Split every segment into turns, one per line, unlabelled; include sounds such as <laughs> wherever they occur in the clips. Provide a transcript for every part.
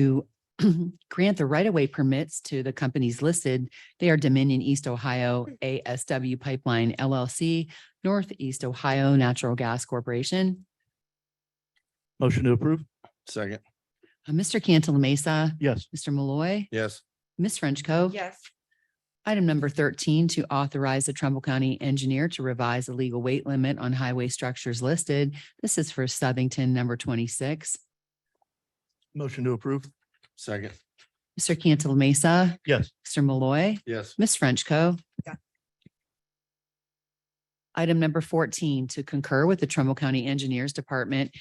to <clears throat> grant the right-of-way permits to the companies listed. They are Dominion East Ohio ASW Pipeline LLC, Northeast Ohio Natural Gas Corporation.
Motion to approve?
Second.
Uh, Mr. Cantala Mesa,
Yes.
Mr. Malloy,
Yes.
Ms. Frenchco.
yes,
Item number thirteen, to authorize the Trumbull County Engineer to revise the legal weight limit on highway structures listed. This is for Southington number twenty-six.
Motion to approve?
Second.
Mr. Cantala Mesa,
Yes.
Mr. Malloy,
Yes.
Ms. Frenchco.
Yeah.
Item number fourteen, to concur with the Trumbull County Engineers Department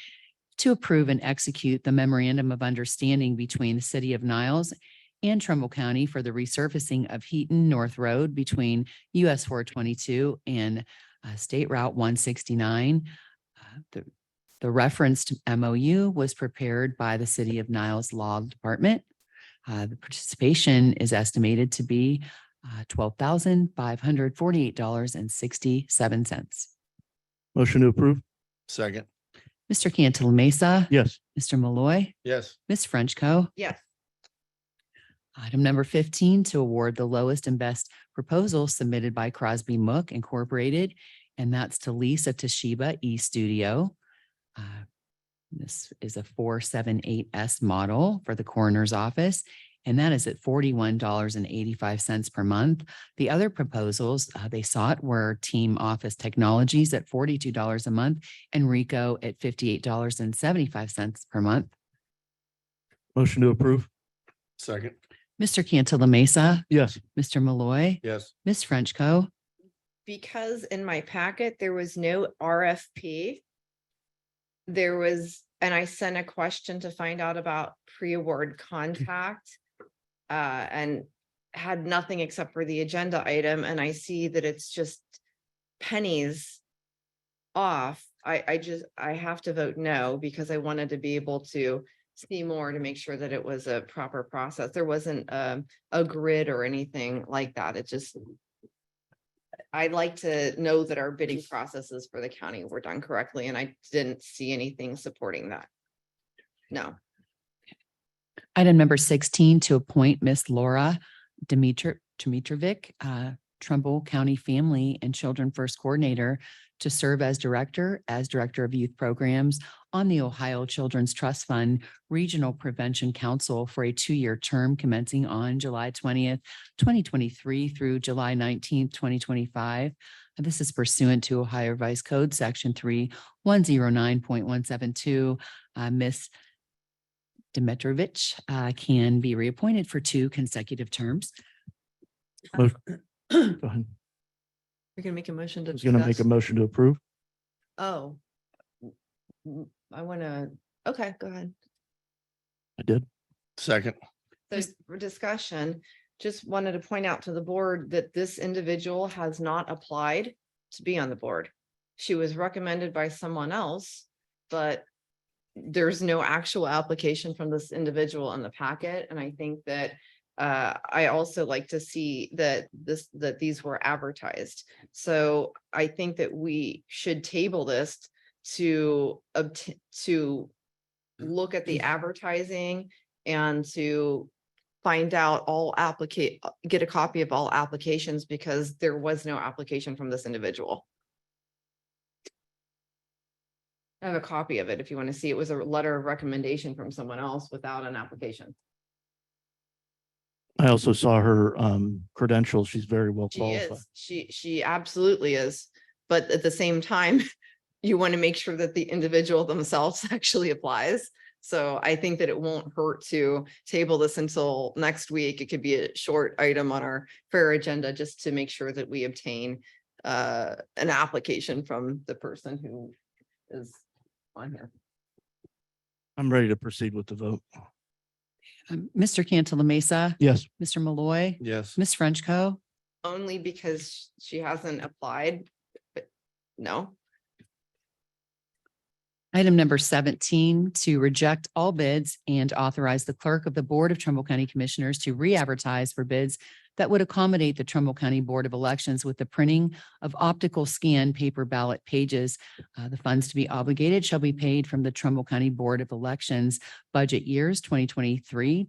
to approve and execute the memorandum of understanding between the City of Niles and Trumbull County for the resurfacing of Heaton North Road between US four twenty-two and uh, State Route one sixty-nine. Uh, The the referenced MOU was prepared by the City of Niles Law Department. Uh, The participation is estimated to be uh, twelve thousand five hundred forty-eight dollars and sixty-seven cents.
Motion to approve?
Second.
Mr. Cantala Mesa.
Yes.
Mr. Malloy.
Yes.
Ms. Frenchco.
yes,
Item number fifteen, to award the lowest and best proposal submitted by Crosby Mook Incorporated, and that's to lease a Toshiba e-studio. Uh, This is a four seven eight S model for the coroner's office, and that is at forty-one dollars and eighty-five cents per month. The other proposals uh, they sought were Team Office Technologies at forty-two dollars a month and Rico at fifty-eight dollars and seventy-five cents per month.
Motion to approve?
Second.
Mr. Cantala Mesa,
Yes.
Mr. Malloy.
Yes.
Ms. Frenchco.
because in my packet, there was no RFP. There was, and I sent a question to find out about pre-award contact. Uh, and had nothing except for the agenda item, and I see that it's just pennies off. I, I just, I have to vote no, because I wanted to be able to see more to make sure that it was a proper process. There wasn't, um, a grid or anything like that. It just I'd like to know that our bidding processes for the county were done correctly, and I didn't see anything supporting that. No,
Item number sixteen, to appoint Miss Laura Dimitri, Dimitrovic, uh, Trumbull County Family and Children First Coordinator to serve as Director, as Director of Youth Programs on the Ohio Children's Trust Fund Regional Prevention Council for a two-year term commencing on July twentieth, twenty twenty-three through July nineteenth, twenty twenty-five. This is pursuant to Ohio Vice Code, Section three, one zero nine point one seven two. Uh, Miss Dimitrovich uh, can be reappointed for two consecutive terms.
Go ahead.
you're gonna make a motion
I
to.
was going to make a
discuss?
motion to approve?
Oh. Mm, I wanna, okay, go ahead.
I did.
Second.
So for discussion, just wanted to point out to the board that this individual has not applied to be on the board. She was recommended by someone else, but there's no actual application from this individual in the packet, and I think that uh, I also like to see that this, that these were advertised. So I think that we should table this to obtain, to look at the advertising and to find out all applicate, get a copy of all applications because there was no application from this individual. I have a copy of it if you want to see. It was a letter of recommendation from someone else without an application.
I also saw her um, credentials. She's very well
She
qualified.
is, she, she absolutely is. But at the same time, <laughs> you want to make sure that the individual themselves <laughs> actually applies. So I think that it won't hurt to table this until next week. It could be a short item on our fair agenda just to make sure that we obtain uh, an application from the person who is on here.
I'm ready to proceed with the vote.
Um, Mr. Cantala Mesa,
Yes.
Mr. Malloy,
Yes.
Ms. Frenchco.
Only because she hasn't applied, but no,
Item number seventeen, to reject all bids and authorize the clerk of the Board of Trumbull County Commissioners to re-advertise for bids that would accommodate the Trumbull County Board of Elections with the printing of optical scan paper ballot pages. Uh, The funds to be obligated shall be paid from the Trumbull County Board of Elections budget years 2023,